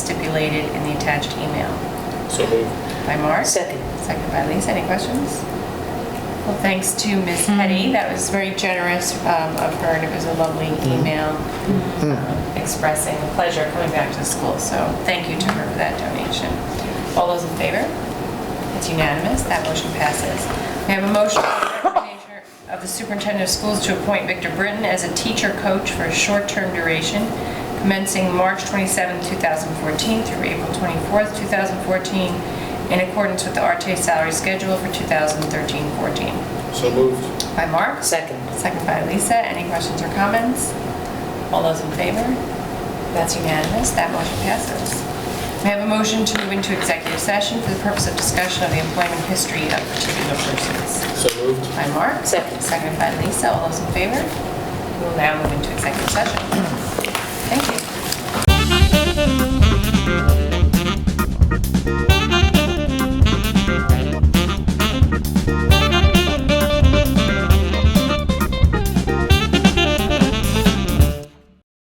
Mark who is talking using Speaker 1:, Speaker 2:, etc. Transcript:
Speaker 1: related in the attached email.
Speaker 2: So moved.
Speaker 1: By Mark?
Speaker 3: Second.
Speaker 1: Second by Lisa. Any questions? Well, thanks to Ms. Petty. That was very generous um, of her, and it was a lovely email um, expressing the pleasure of coming back to school. So thank you to her for that donation. All those in favor? It's unanimous. That motion passes. We have a motion for the resignation of the superintendent of schools to appoint Victor Britton as a teacher coach for a short-term duration commencing March 27, 2014 through April 24, 2014, in accordance with the RTA salary schedule for 2013-14.
Speaker 2: So moved.
Speaker 1: By Mark?
Speaker 3: Second.
Speaker 1: Second by Lisa. Any questions or comments? All those in favor? That's unanimous. That motion passes. May I have a motion to move into executive session for the purpose of discussion of the employment history of particular persons?
Speaker 2: So moved.
Speaker 1: By Mark?
Speaker 3: Second.
Speaker 1: Second by Lisa. All those in favor? We will now move into executive session.